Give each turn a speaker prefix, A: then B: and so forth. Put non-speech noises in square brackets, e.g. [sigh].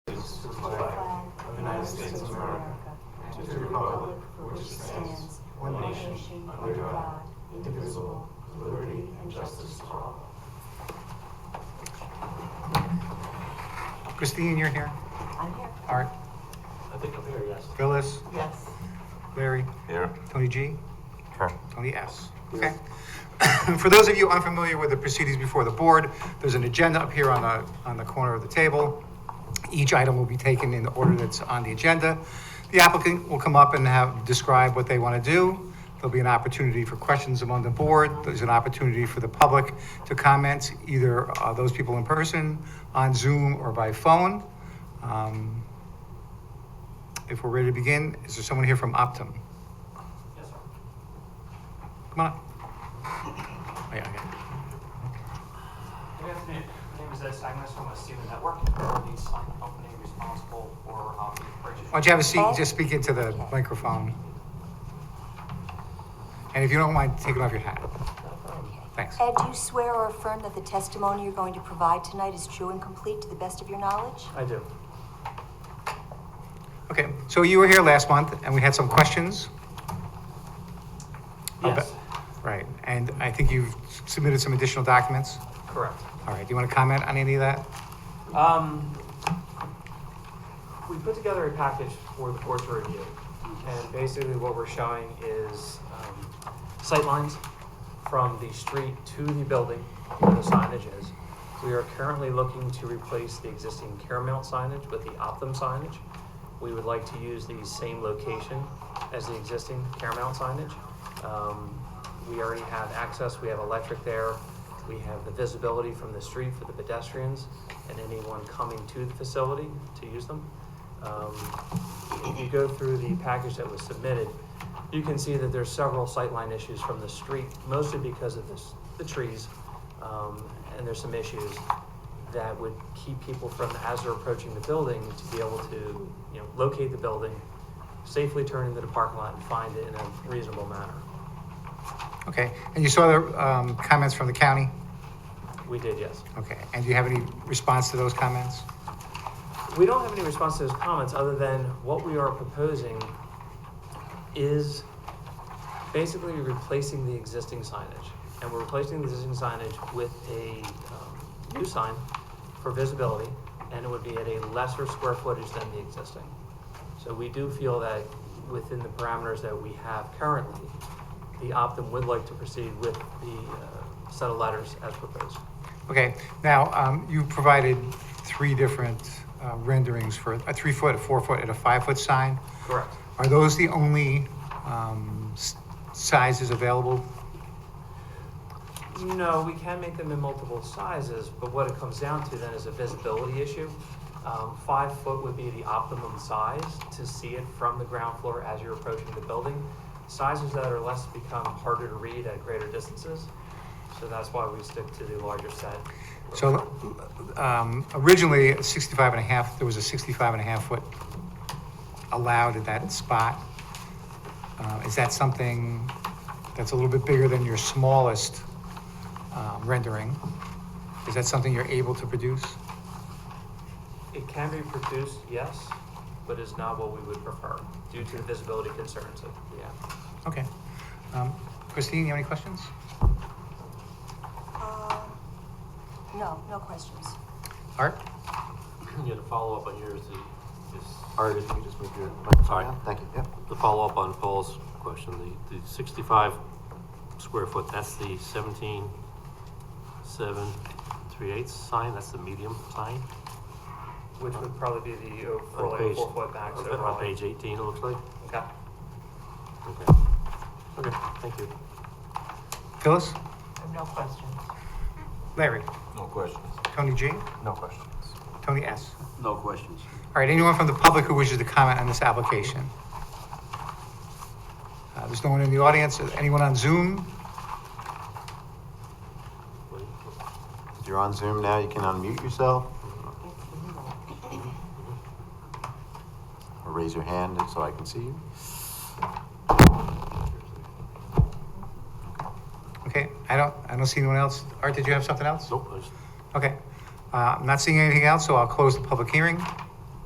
A: the flag of the United States of America, and to the republic for which it stands, one nation, under God, indivisible, with liberty and justice for all.
B: Christine, you're here.
C: I'm here.
B: Art,
A: I think I'm here, yes.
B: Phyllis,
C: Yes.
B: Larry,
A: Here.
B: Tony G,
A: Sure.
B: Tony S. Okay. [coughs] For those of you unfamiliar with the proceedings before the board, there's an agenda up here on the, on the corner of the table. Each item will be taken in the order that's on the agenda. The applicant will come up and have, describe what they want to do. There'll be an opportunity for questions among the board. There's an opportunity for the public to comment, either uh, those people in person, on Zoom, or by phone. Um, If we're ready to begin, is there someone here from Optum?
A: Yes, sir.
B: Come on. up. Oh, yeah, yeah.
D: Good afternoon. My name is Ed Stagnis from the Stephen Network, the sign company responsible for um, British.
B: Why don't you have a seat, and just speak into the microphone. And if you don't mind, taking off your hat. Thanks.
C: Ed, do you swear or affirm that the testimony you're going to provide tonight is true and complete to the best of your knowledge?
D: I do.
B: Okay, so you were here last month and we had some questions?
D: Yes,
B: about- Right, and I think you've submitted some additional documents?
D: correct.
B: All right, do you want to comment on any of that?
D: Um, we put together a package for the board to review, and basically what we're showing is um, sightlines from the street to the building where the signage is. We are currently looking to replace the existing Caramount signage with the Optum signage. We would like to use the same location as the existing Caramount signage. Um, we already have access, we have electric there, we have the visibility from the street for the pedestrians and anyone coming to the facility to use them. Um, If you go through the package that was submitted, you can see that there's several sightline issues from the street, mostly because of this, the trees. um, And there's some issues that would keep people from, as they're approaching the building, to be able to, you know, locate the building, safely turn into the parking lot and find it in a reasonable manner.
B: Okay, and you saw the um, comments from the county?
D: We did, yes.
B: Okay, and do you have any response to those comments?
D: We don't have any response to those comments other than what we are proposing is basically replacing the existing signage. And we're replacing the existing signage with a um, new sign for visibility, and it would be at a lesser square footage than the existing. So we do feel that within the parameters that we have currently, the Optum would like to proceed with the uh, set of letters as proposed.
B: Okay, now, um, you provided three different uh, renderings for a three-foot, a four-foot, and a five-foot sign.
D: Correct.
B: Are those the only um, s- sizes available?
D: No, we can make them in multiple sizes, but what it comes down to then is a visibility issue. Um, five foot would be the optimum size to see it from the ground floor as you're approaching the building. Sizes that are less become harder to read at greater distances, so that's why we stick to the larger set.
B: So um, originally, 65 and a half, there was a 65 and a half foot allowed at that spot. Uh, Is that something that's a little bit bigger than your smallest um, rendering? Is that something you're able to produce?
D: It can be produced, yes, but is not what we would prefer due to the visibility concerns of, yeah.
B: Okay. Um, Christine, you have any questions?
C: Uh, No, no questions.
B: Art?
E: Yeah, the follow-up on yours is, is.
A: Art, if you could just move your microphone
E: Sorry.
A: down. Thank you, yep.
E: The follow-up on Paul's question, the, the sixty-five square foot, that's the seventeen, seven, three eighths sign, that's the medium sign?
D: Which would probably be the
E: on
D: overlay,
E: page-
D: four foot max
E: on-
D: overall.
E: On page eighteen, it looks like,
D: Okay.
E: okay.
D: Mm-hmm.
E: Okay, thank you.
B: Phyllis?
C: No questions.
B: Larry?
F: No questions.
B: Tony G?
F: No questions.
B: Tony S?
F: No questions.
B: All right, anyone from the public who wishes to comment on this application? Uh, There's no one in the audience, anyone on Zoom?
A: You're on Zoom now, you can unmute yourself. Or raise your hand so I can see you.
B: Okay, I don't, I don't see anyone else. Art, did you have something else?
E: Nope, I just-
B: Okay, Uh, I'm not seeing anything else, so I'll close the public hearing.